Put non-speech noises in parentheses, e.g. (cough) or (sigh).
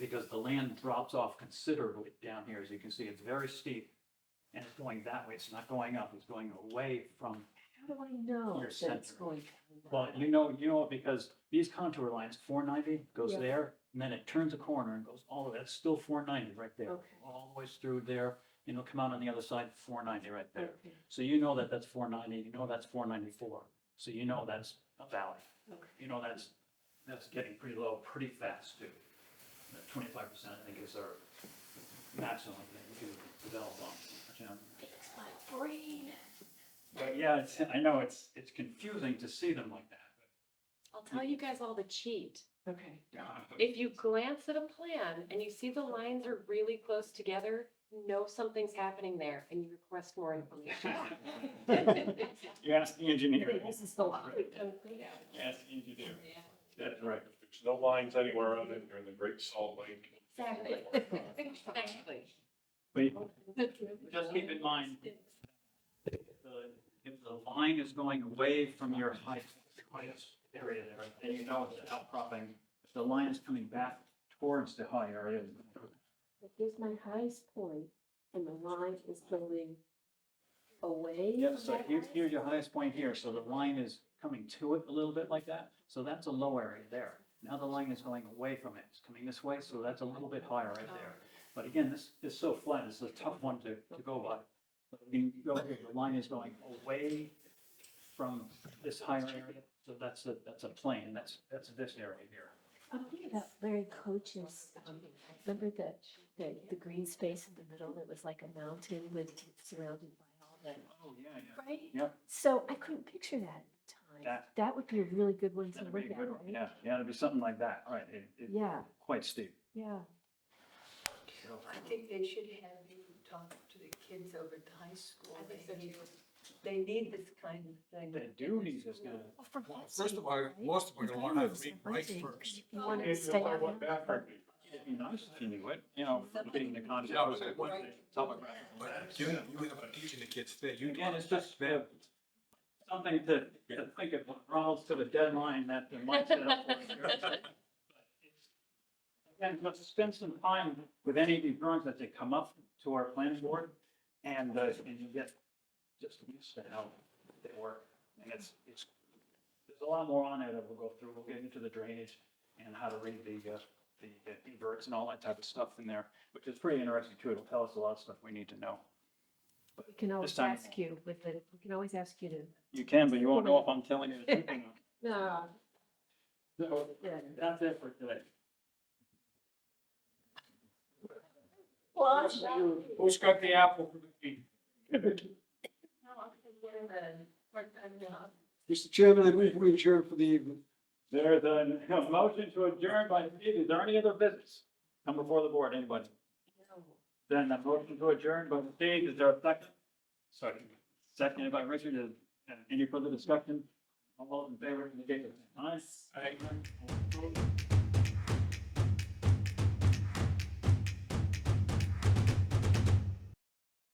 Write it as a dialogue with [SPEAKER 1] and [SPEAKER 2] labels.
[SPEAKER 1] because the land drops off considerably down here. As you can see, it's very steep and it's going that way. It's not going up. It's going away from,
[SPEAKER 2] How do I know
[SPEAKER 1] Your
[SPEAKER 2] that it's
[SPEAKER 1] center.
[SPEAKER 2] going?
[SPEAKER 1] well, you know, you know, it because these contour lines, four ninety goes
[SPEAKER 2] Yeah.
[SPEAKER 1] there and then it turns a corner and goes all the way. That's still four ninety right there.
[SPEAKER 2] Okay.
[SPEAKER 1] All the way through there and it'll come out on the other side, four ninety right there.
[SPEAKER 2] Okay,
[SPEAKER 1] So you know that that's four ninety, you know that's four ninety-four. So you know that's a valley.
[SPEAKER 2] okay.
[SPEAKER 1] You know that's, that's getting pretty low pretty fast too. Twenty-five percent, I think, is our maximum that we can develop on. you know.
[SPEAKER 2] It's my brain.
[SPEAKER 1] But yeah, it's, I know
[SPEAKER 2] (laughs)
[SPEAKER 1] it's, it's confusing to see them like that.
[SPEAKER 3] I'll tell you guys all the cheat.
[SPEAKER 2] Okay.
[SPEAKER 1] but-
[SPEAKER 3] If you glance at a plan and you see the lines are really close together, you know something's happening there and you request
[SPEAKER 1] (laughs)
[SPEAKER 3] more information.
[SPEAKER 1] You ask the engineer.
[SPEAKER 2] This is the lot.
[SPEAKER 1] You ask the engineer. That's
[SPEAKER 4] Right, there's no lines anywhere on it, you're in the Great Salt Lake.
[SPEAKER 3] (laughs) Exactly. Exactly.
[SPEAKER 1] But Just keep in mind, the- if the line is going away from your high highest area there, then you know it's an outcropping. If the line is coming back towards the high area,
[SPEAKER 2] Here's my highest point, and the line is going away.
[SPEAKER 1] yeah, so
[SPEAKER 2] from
[SPEAKER 1] here's,
[SPEAKER 2] that.
[SPEAKER 1] here's your highest point here, so the line is coming to it a little bit like that, so that's a low area there. Now the line is going away from it, it's coming this way, so that's a little bit higher right there. But again, this is so flat, it's a tough one to, to go by. But You can go here, the line is going away from this higher area, so that's a, that's a plane, that's, that's this area here.
[SPEAKER 3] Oh,
[SPEAKER 2] I'm thinking about Larry Coach's, um, remember the, the, the green space in the middle that was like a mountain with surrounded by all that,
[SPEAKER 1] Oh, yeah, yeah.
[SPEAKER 2] right?
[SPEAKER 1] Yep.
[SPEAKER 2] So I couldn't picture that at the time.
[SPEAKER 1] That-
[SPEAKER 2] That would be a really good one to
[SPEAKER 1] That'd
[SPEAKER 2] look
[SPEAKER 1] be a
[SPEAKER 2] at,
[SPEAKER 1] good one,
[SPEAKER 2] right?
[SPEAKER 1] yeah, yeah, it'd be something like that, right, it, it,
[SPEAKER 2] Yeah,
[SPEAKER 1] quite steep.
[SPEAKER 2] yeah.
[SPEAKER 5] I think they should have you talk to the kids over at the high school.
[SPEAKER 3] I think so too.
[SPEAKER 5] They need this kind of thing. (laughs)
[SPEAKER 1] The duties is gonna.
[SPEAKER 2] Well, from
[SPEAKER 6] Well,
[SPEAKER 2] that
[SPEAKER 6] First
[SPEAKER 2] seat,
[SPEAKER 6] of all,
[SPEAKER 2] right?
[SPEAKER 6] most of them are
[SPEAKER 2] If I
[SPEAKER 6] gonna learn how
[SPEAKER 2] was
[SPEAKER 6] to read
[SPEAKER 2] a
[SPEAKER 6] right
[SPEAKER 2] hunting,
[SPEAKER 6] first.
[SPEAKER 2] You want to
[SPEAKER 4] If you
[SPEAKER 2] stay
[SPEAKER 4] apply
[SPEAKER 2] on
[SPEAKER 4] what
[SPEAKER 2] that?
[SPEAKER 4] background we-
[SPEAKER 1] It'd be nice if you knew it, you know, being the concept.
[SPEAKER 6] Yeah, I was saying,
[SPEAKER 1] of- Topographic.
[SPEAKER 6] But you, you end up teaching the kids today, you.
[SPEAKER 1] Again, it's just uh, something to, to think of, Ronald's to the deadline that they might set up for
[SPEAKER 3] (laughs)
[SPEAKER 1] us. Again, let's spend some time with any of these drawings that they come up to our planning board and, uh, and you get just used to how they work. And it's, it's, there's a lot more on there that we'll go through. We'll get into the drainage and how to read the, uh, the uh, inverts and all that type of stuff in there, which is pretty interesting too. It'll tell us a lot of stuff we need to know.
[SPEAKER 2] We can always
[SPEAKER 1] This time-
[SPEAKER 2] ask you with the, we can always ask you to.
[SPEAKER 1] You can, but you won't know if I'm telling you the truth or not.
[SPEAKER 2] No.
[SPEAKER 1] So
[SPEAKER 2] Yeah.
[SPEAKER 1] that's it for today.
[SPEAKER 2] Well,
[SPEAKER 6] Who's got the apple?
[SPEAKER 7] Mr. Chairman, I move we adjourn for the evening.
[SPEAKER 1] There's a a motion to adjourn by Steve. Is there any other business? Come before the board, anybody? Then the motion to adjourn by Steve. Is there a second? Second. Seconded by Richard. Is- Any further discussion? All those in favor indicate by